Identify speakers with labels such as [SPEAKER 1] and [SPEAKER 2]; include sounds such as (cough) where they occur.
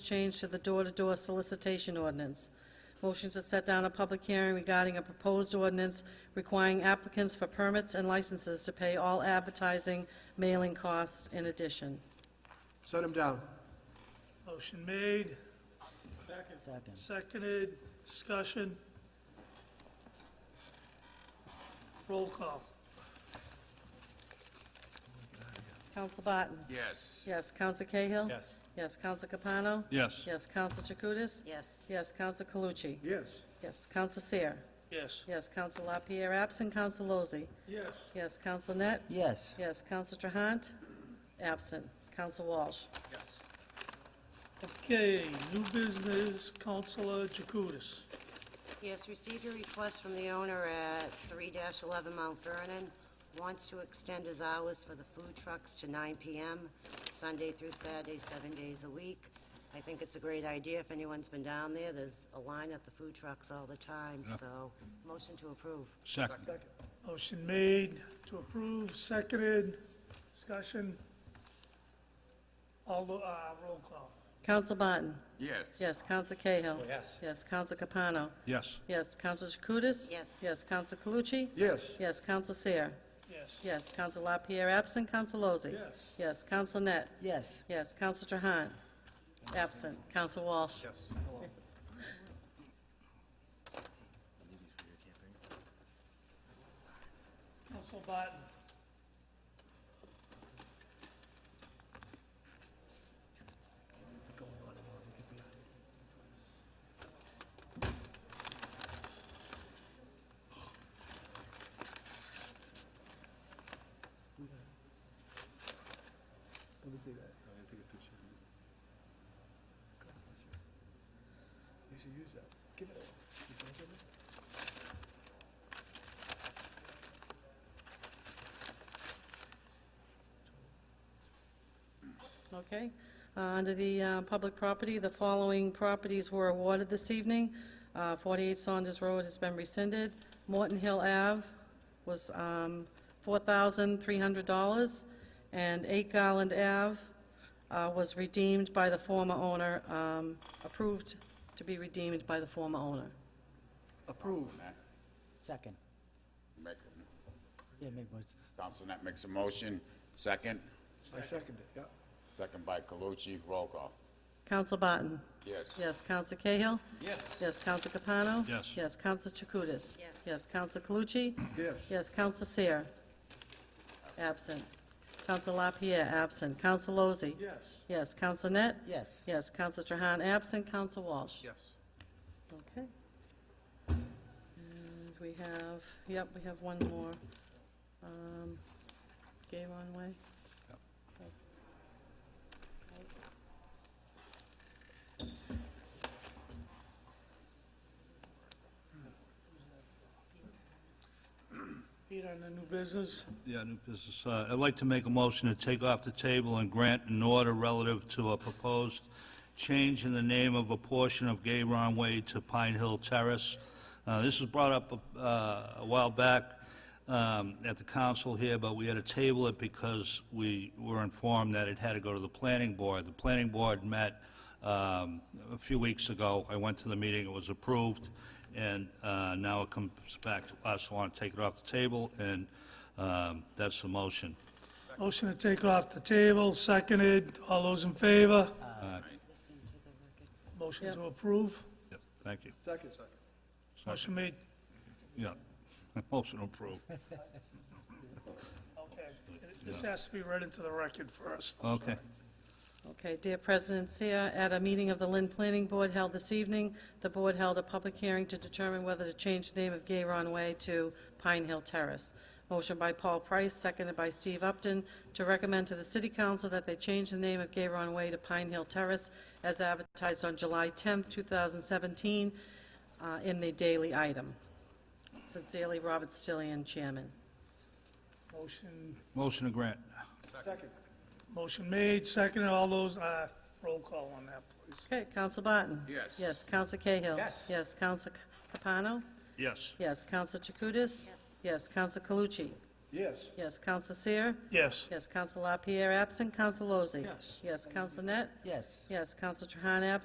[SPEAKER 1] change to the door-to-door solicitation ordinance. Motion to set down a public hearing regarding a proposed ordinance requiring applicants for permits and licenses to pay all advertising mailing costs in addition.
[SPEAKER 2] Set him down.
[SPEAKER 3] Motion made,
[SPEAKER 4] Second.
[SPEAKER 3] seconded, discussion. Roll call.
[SPEAKER 1] Counsel Barton?
[SPEAKER 5] Yes.
[SPEAKER 1] Yes, Counsel Cahill?
[SPEAKER 3] Yes.
[SPEAKER 1] Yes, Counsel Capano?
[SPEAKER 5] Yes.
[SPEAKER 1] Yes, Counsel Chakutis?
[SPEAKER 4] Yes.
[SPEAKER 1] Yes, Counsel Calucci?
[SPEAKER 2] Yes.
[SPEAKER 1] Yes, Counsel Seer?
[SPEAKER 3] Yes.
[SPEAKER 1] Yes, Counsel LaPierre absent, Counsel Lozey?
[SPEAKER 3] Yes.
[SPEAKER 1] Yes, Counsel Net?
[SPEAKER 4] Yes.
[SPEAKER 1] Yes, Counsel Trahant absent, Counsel Walsh?
[SPEAKER 3] Okay, new business, Counselor Jacutis.
[SPEAKER 6] Yes, received a request from the owner at 3-11 Mount Vernon, wants to extend his hours for the food trucks to 9 PM, Sunday through Saturday, seven days a week. I think it's a great idea if anyone's been down there, there's a line at the food trucks all the time, so motion to approve.
[SPEAKER 5] Second.
[SPEAKER 3] Motion made to approve, seconded, discussion. All, the- uh, roll call.
[SPEAKER 1] Counsel Barton?
[SPEAKER 5] Yes.
[SPEAKER 1] Yes, Counsel Cahill?
[SPEAKER 3] Yes.
[SPEAKER 1] Yes, Counsel Capano?
[SPEAKER 5] Yes.
[SPEAKER 1] Yes, Counsel Chakutis?
[SPEAKER 6] Yes.
[SPEAKER 1] Yes, Counsel Calucci?
[SPEAKER 2] Yes.
[SPEAKER 1] Yes, Counsel Seer?
[SPEAKER 3] Yes.
[SPEAKER 1] Yes, Counsel LaPierre absent, Counsel Lozey?
[SPEAKER 3] Yes.
[SPEAKER 1] Yes, Counsel Net?
[SPEAKER 4] Yes.
[SPEAKER 1] Yes, Counsel Trahan absent, Counsel Walsh?
[SPEAKER 5] Yes.
[SPEAKER 3] Counsel Barton.
[SPEAKER 2] Let me see that. You should use that. Give it away. You can give it?
[SPEAKER 1] Okay. Uh, Under the uh, public property, the following properties were awarded this evening. Uh, 48 Saunders Road has been rescinded. Morton Hill Ave was um, $4,300, and 8 Garland Ave uh, was redeemed by the former owner, um, approved to be redeemed by the former owner.
[SPEAKER 2] Approve.
[SPEAKER 4] Second.
[SPEAKER 7] Make,
[SPEAKER 4] Yeah, make more.
[SPEAKER 7] Counsel Net makes a motion, second,
[SPEAKER 2] I second it, yeah.
[SPEAKER 7] second by Calucci, roll call.
[SPEAKER 1] Counsel Barton?
[SPEAKER 7] Yes.
[SPEAKER 1] Yes, Counsel Cahill?
[SPEAKER 5] Yes.
[SPEAKER 1] Yes, Counsel Capano?
[SPEAKER 5] Yes.
[SPEAKER 1] Yes, Counsel Chakutis?
[SPEAKER 6] Yes.
[SPEAKER 1] Yes, Counsel Calucci?
[SPEAKER 2] Yes.
[SPEAKER 1] Yes, Counsel Seer. Absent. Counsel LaPierre, absent. Counsel Lozey.
[SPEAKER 3] Yes.
[SPEAKER 1] Yes, Counsel Net.
[SPEAKER 4] Yes.
[SPEAKER 1] Yes, Counsel Trahan, absent. Counsel Walsh.
[SPEAKER 5] Yes.
[SPEAKER 1] Okay. And we have, yep, we have one more. Um, Gayron Way.
[SPEAKER 3] Pete on the new business.
[SPEAKER 8] Yeah, new business. Uh, I'd like to make a motion to take off the table and grant an order relative to a proposed change in the name of a portion of Gayron Way to Pine Hill Terrace. Uh, This was brought up uh, a while back um, at the council here, but we had to table it because we were informed that it had to go to the planning board. The planning board met um, a few weeks ago. I went to the meeting, it was approved, and uh, now it comes back to us. I want to take it off the table, and um, that's the motion.
[SPEAKER 3] Motion to take off the table, seconded. All those in favor? Motion to approve.
[SPEAKER 8] Yeah, Thank you.
[SPEAKER 2] Second. Second.
[SPEAKER 3] Motion made.
[SPEAKER 8] Yeah, (laughs) motion approved.
[SPEAKER 3] Okay. This has to be read into the record first.
[SPEAKER 8] Okay.
[SPEAKER 1] Okay, dear President Seer, at a meeting of the Lynn Planning Board held this evening, the board held a public hearing to determine whether to change the name of Gayron Way to Pine Hill Terrace. Motion by Paul Price, seconded by Steve Upton, to recommend to the city council that they change the name of Gayron Way to Pine Hill Terrace as advertised on July 10th, 2017, uh, in the daily item. Sincerely, Robert Stillian, Chairman.
[SPEAKER 3] Motion,
[SPEAKER 8] Motion to grant.
[SPEAKER 2] Second.
[SPEAKER 3] motion made, seconded. All those, uh, roll call on that, please.
[SPEAKER 1] Okay, Counsel Barton?
[SPEAKER 7] Yes.
[SPEAKER 1] Yes, Counsel Cahill?
[SPEAKER 3] Yes.
[SPEAKER 1] Yes, Counsel Capano?
[SPEAKER 8] Yes.
[SPEAKER 1] Yes, Counsel Chakutis? Yes. Yes, Counsel Calucci?
[SPEAKER 2] Yes.
[SPEAKER 1] Yes, Counsel Seer?
[SPEAKER 3] Yes.
[SPEAKER 1] Yes, Counsel LaPierre absent, Counsel Lozey?
[SPEAKER 3] Yes.
[SPEAKER 1] Yes, Counsel Net?
[SPEAKER 4] Yes.
[SPEAKER 1] Yes, Counsel Trahan absent,